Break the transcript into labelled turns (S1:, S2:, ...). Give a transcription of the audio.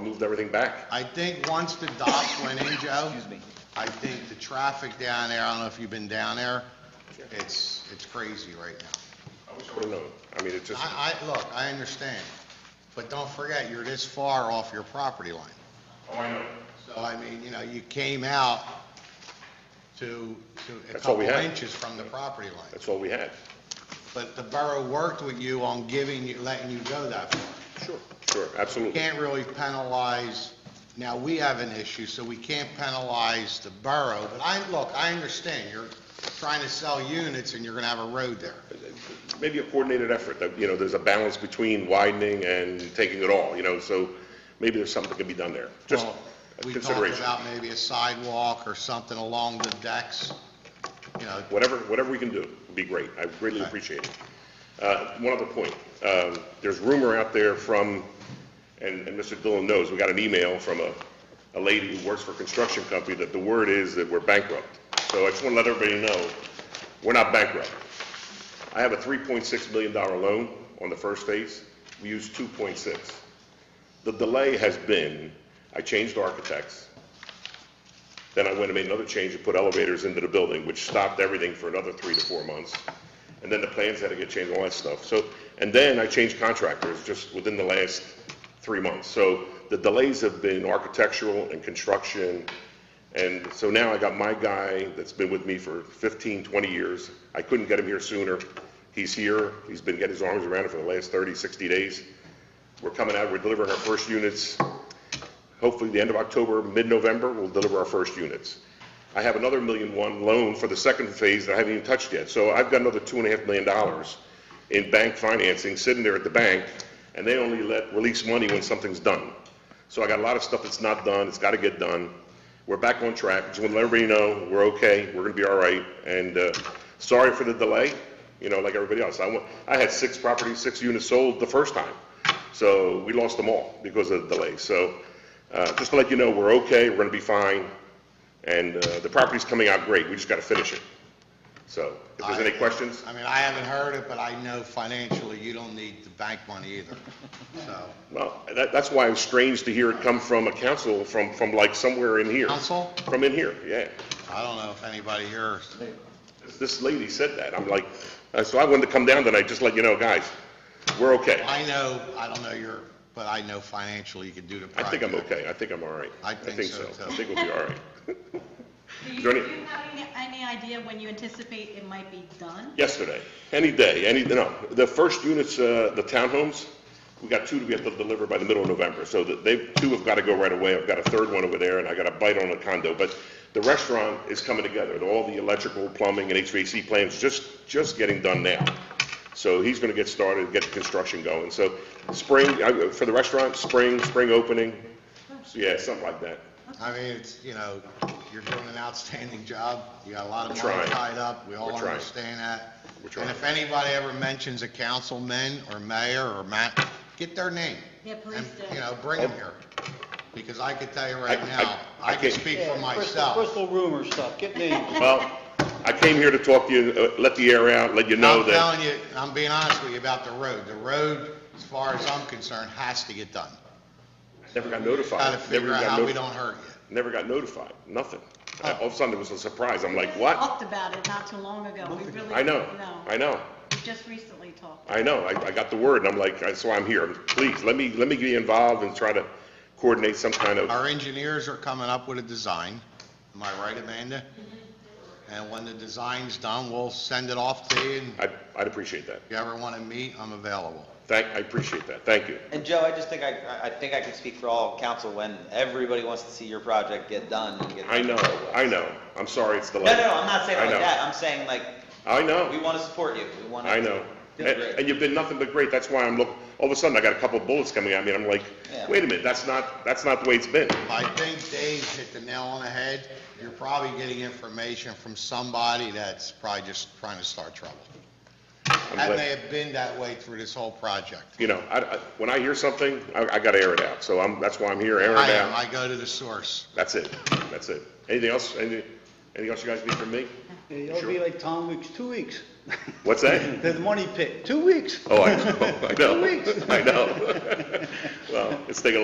S1: moved everything back.
S2: I think once the docks went in, Joe,
S3: Excuse me.
S2: I think the traffic down there, I don't know if you've been down there, it's, it's crazy right now.
S1: I don't know. I mean, it just,
S2: I, I, look, I understand, but don't forget, you're this far off your property line. So, oh, I mean, you know, you came out to, to a
S1: That's all
S2: couple
S1: we had.
S2: inches from the property line.
S1: that's all we had.
S2: But the borough worked with you on giving you, letting you go that far.
S1: Sure. Sure, absolutely.
S2: can't really penalize, now we have an issue, so we can't penalize the borough, but I, look, I understand, you're trying to sell units and you're gonna have a road there.
S1: Maybe a coordinated effort, that, you know, there's a balance between widening and taking it all, you know, so maybe there's something that can be done there. Just
S2: Well,
S1: a
S2: We talked
S1: consideration.
S2: about maybe a sidewalk or something along the decks, you know,
S1: Whatever, whatever we can do would be great. I greatly
S2: Okay.
S1: appreciate it. Uh, One other point, Um, there's rumor out there from, and and Mr. Dillon knows, we got an email from a a lady who works for a construction company that the word is that we're bankrupt. So I just want to let everybody know, we're not bankrupt. I have a $3.6 million loan on the first phase. We used 2.6. The delay has been, I changed architects, then I went and made another change and put elevators into the building, which stopped everything for another three to four months. And then the plans had to get changed, all that stuff. So, and then I changed contractors just within the last three months. So the delays have been architectural and construction. And so now I got my guy that's been with me for 15, 20 years. I couldn't get him here sooner. He's here. He's been getting his arms around it for the last 30, 60 days. We're coming out, we're delivering our first units hopefully the end of October, mid-November, we'll deliver our first units. I have another million one loan for the second phase that I haven't even touched yet. So I've got another two and a half million dollars in bank financing sitting there at the bank, and they only let, release money when something's done. So I got a lot of stuff that's not done, it's gotta get done. We're back on track, just wanna let everybody know, we're okay, we're gonna be all right, and, uh, sorry for the delay, you know, like everybody else. I wa- I had six properties, six units sold the first time, so we lost them all because of the delay. So, uh, just to let you know, we're okay, we're gonna be fine, and, uh, the property's coming out great, we just gotta finish it. So, if there's any
S2: I-
S1: questions,
S2: I mean, I haven't heard it, but I know financially you don't need the bank money either, so.
S1: well, that, that's why it's strange to hear it come from a council, from, from like somewhere in here.
S2: Counsel,
S1: From in here, yeah.
S2: I don't know if anybody here,
S1: This lady said that, I'm like, uh, so I wanted to come down tonight, just to let you know, guys, we're okay.
S2: I know, I don't know your, but I know financially you can do the
S1: I think
S2: project.
S1: I'm okay, I think I'm all right.
S2: I think so, too.
S1: I think we'll be all right.
S4: Do
S1: Is there
S4: you, do
S1: any-
S4: you have any, any idea when you anticipate it might be done?
S1: Yesterday, any day, any, no, the first units, uh, the townhomes, we got two to be able to deliver by the middle of November, so that they, two have got to go right away, I've got a third one over there, and I got a bite on a condo, but the restaurant is coming together, all the electrical, plumbing, and HVAC plans just, just getting done now. So he's gonna get started, get the construction going, so spring, I- for the restaurant, spring, spring opening, so yeah, something like that.
S2: I mean, it's, you know, you're doing an outstanding job, you got a lot of
S1: We're
S2: money
S1: trying.
S2: tied up, we all
S1: We're trying.
S2: understand that.
S1: We're trying.
S2: And if anybody ever mentions a councilman or mayor or ma, get their name.
S4: Yeah, please
S2: And,
S4: do.
S2: you know, bring them here, because I could tell you right
S1: I- I-
S2: now,
S1: I
S2: I can
S1: can't-
S2: speak
S3: Yeah,
S2: for
S3: crystal-
S2: myself.
S3: Crystal rumor stuff, get names.
S1: Well, I came here to talk to you, uh, let the air out, let you know
S2: I'm
S1: that.
S2: telling you, I'm being honest with you about the road, the road, as far as I'm concerned, has to get done.
S1: Never got
S2: Gotta
S1: notified. Never
S2: figure
S1: got
S2: out how we
S1: notified.
S2: don't hurt you.
S1: Never got notified, nothing. I- All of a sudden, it was a surprise. I'm like, what?
S4: Talked about it not too long ago, we really.
S1: I know,
S4: Oh, No.
S1: I know,
S4: We just recently talked.
S1: I know. I, I got the word, and I'm like, I- so I'm here. Please, let me, let me get involved and try to coordinate some kind of,
S2: Our engineers are coming up with a design, am I right, Amanda? And when the design's done, we'll send it off to you, and if
S1: I, I'd appreciate that.
S2: you ever want to meet, I'm available.
S1: Thank, I appreciate that. Thank you.
S5: And Joe, I just think I, I- I think I can speak for all council when everybody wants to see your project get done and get.
S1: I know, I know. I'm sorry it's delayed.
S5: No, no, no, I'm not saying
S1: I
S5: like
S1: know.
S5: that, I'm saying like,
S1: I
S5: we
S1: know,
S5: want to support you, we want to.
S1: I know.
S5: Feel
S1: And,
S5: great.
S1: and you've been nothing but great. That's why I'm look, all of a sudden, I got a couple bullets coming at me, and I'm like,
S5: Yeah.
S1: wait a minute, that's not, that's not the way it's been.
S2: I think Dave hit the nail on the head, you're probably getting information from somebody that's probably just trying to start trouble.
S1: I'm
S2: That
S1: glad-
S2: may have been that way through this whole project.
S1: you know, I, I, when I hear something, I, I gotta air it out, so I'm, that's why I'm here, air
S2: I
S1: it
S2: am,
S1: out.
S2: I go to the source.
S1: That's it, that's it. Anything else, anything, anything else you guys need from me?
S3: It'll be like Tom Weeks, two weeks.
S1: What's that?
S3: The money pit, two weeks.
S1: Oh, I, I know,
S3: Two weeks.
S1: I know. Well, it's taking a